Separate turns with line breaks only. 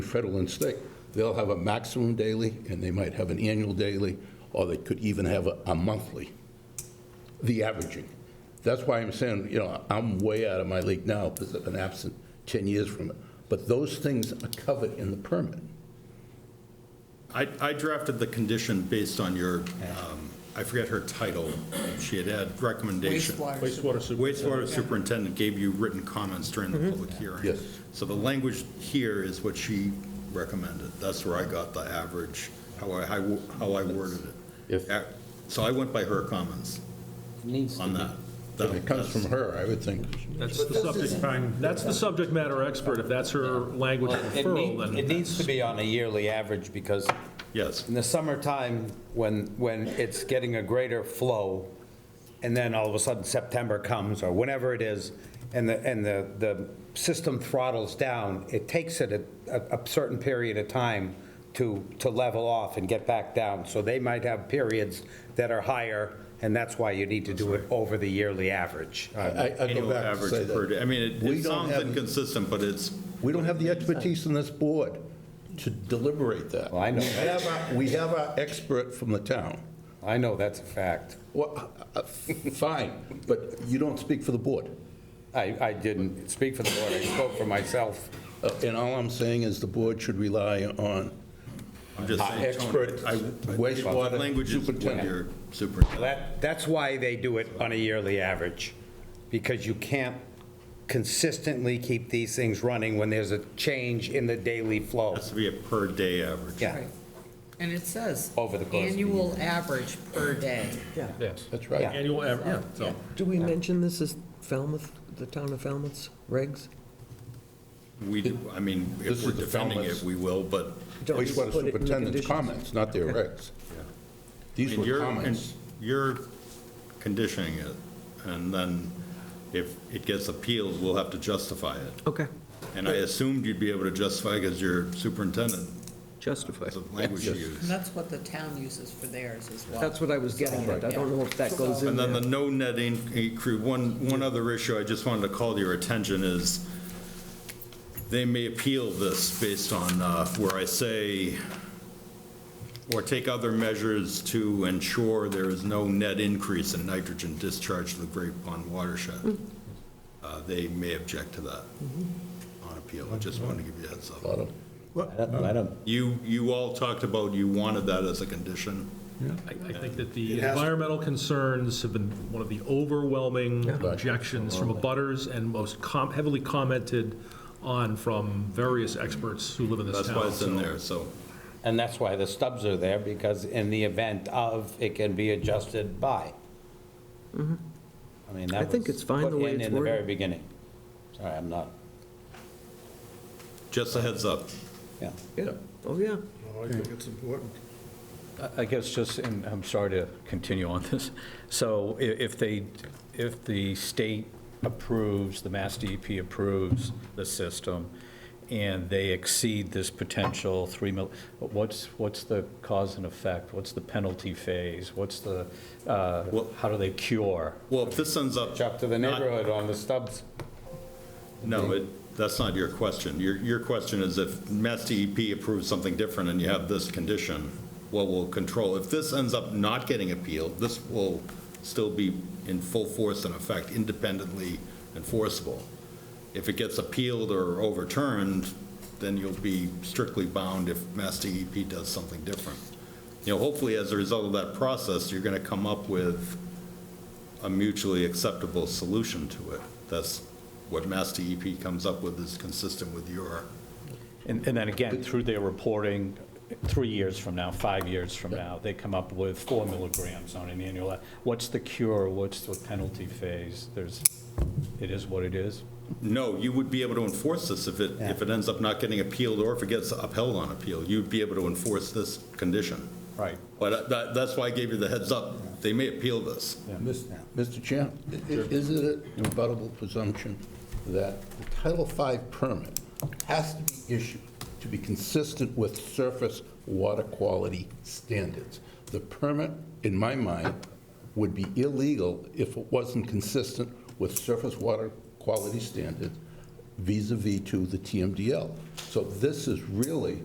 Federal and state, they'll have a maximum daily, and they might have an annual daily, or they could even have a- a monthly, the averaging. That's why I'm saying, you know, I'm way out of my league now, because I've been absent 10 years from it. But those things are covered in the permit.
I, I drafted the condition based on your, um, I forget her title, she had had recommendation.
Wastewater.
Wastewater
Wastewater superintendent gave you written comments during the public hearing.
Mm-hmm. Yes.
So the language here is what she recommended. That's where I got the average, how I, how I- how I worded
If-
it. Uh, So I went by her comments
Needs to
on
be.
that.
If it comes from
That's-
her, I would think,
That's the subject, that's the subject matter expert, if that's her language of
Well, It
referral,
need- it
then,
needs to be on a yearly average, because
Yes,
in the summertime, when, when it's getting a greater flow, and then all of a sudden September comes, or whenever it is, and the, and the, the system throttles down, it takes it a, a a certain period of time to, to level off and get back down. So they might have periods that are higher, and that's why you need to do it over the yearly average.
I- I I go
annual
back to say
average per
that.
day. I mean, it-
We
it
don't
sounds
have-
inconsistent, but it's,
We don't have the expertise in this board to deliberate that.
Well, I know.
We have our- We have our expert from the town.
I know that's a fact.
Well, uh, uh, fine, but you don't speak for the board.
I, I didn't speak for the board, I spoke for myself.
Uh, And all I'm saying is the board should rely on
I'm just
our
saying. Tony,
expert
I- I- The
wastewater
language is what
superintendent.
your superintendent.
That, that's why they do it on a yearly average, because you can't consistently keep these things running when there's a change in the daily flow.
Has to be a per-day average.
Yeah,
Right. And it says.
Over the course of the
Annual average per day.
yes,
That's right.
annual, aver- yeah, so,
Do we mention this as Falmouth, the town of Falmouth's regs?
We, do- I mean,
This
if we're
is the
defending
Falmouth.
it, we will, but
Don't we
Wastewater
put it in the
superintendent's
conditions?
comments, not their regs. These
and
were
you're, and
comments.
you're conditioning it, and then if it gets appealed, we'll have to justify it.
Okay.
And I assumed you'd be able to justify because you're superintendent,
Justify.
the language you
And
use.
that's what the town uses for theirs as well.
That's what I was getting at. I don't know if that goes in
And then the
there.
no net increase, one, one other issue I just wanted to call to your attention is they may appeal this based on uh, where I say, or take other measures to ensure there is no net increase in nitrogen discharge to the Great Pond watershed. Uh, They may object to that on appeal. I just wanted to give you a heads
A lot
up.
of
You, you all talked about you wanted that as a condition.
I I think that the environmental concerns have been one of the overwhelming objections from abutters and most com- heavily commented on from various experts who live in this
That's
town.
why it's in
so-
there, so.
and that's why the stubs are there, because in the event of, it can be adjusted by. I mean,
Mm-hmm. I
that
think
was
it's fine the
put
way
in
it's
in the very
worded.
beginning. Sorry, I'm not,
Just a heads up.
yeah.
Yeah. Oh, yeah.
I think it's important.
I- I guess just, and I'm sorry to continue on this, so i- if they, if the state approves, the Mass DEP approves the system, and they exceed this potential 3 mil, what's, what's the cause and effect? What's the penalty phase? What's the, uh,
Well-
how do they cure?
Well, if this ends up.
It's up to the
not-
neighborhood on the stubs.
No, it, that's not your question. Your, your question is if Mass DEP approves something different and you have this condition, what will control? If this ends up not getting appealed, this will still be in full force and effect, independently enforceable. If it gets appealed or overturned, then you'll be strictly bound if Mass DEP does something different. You know, hopefully, as a result of that process, you're going to come up with a mutually acceptable solution to it. That's what Mass DEP comes up with is consistent with your,
And and then again, through their reporting, three years from now, five years from now, they come up with four milligrams on an annual, what's the cure, what's the penalty phase? There's, it is what it is.
no, you would be able to enforce this if it, if it ends up not getting appealed or if it gets upheld on appeal. You'd be able to enforce this condition.
Right.
But uh, that, that's why I gave you the heads up. They may appeal this.
Mis- Mr. Chair, i- i- is it an rebuttable presumption that the Title V permit has to be issued to be consistent with surface water quality standards? The permit, in my mind, would be illegal if it wasn't consistent with surface water quality standards vis-à-vis to the TMDL. So this is really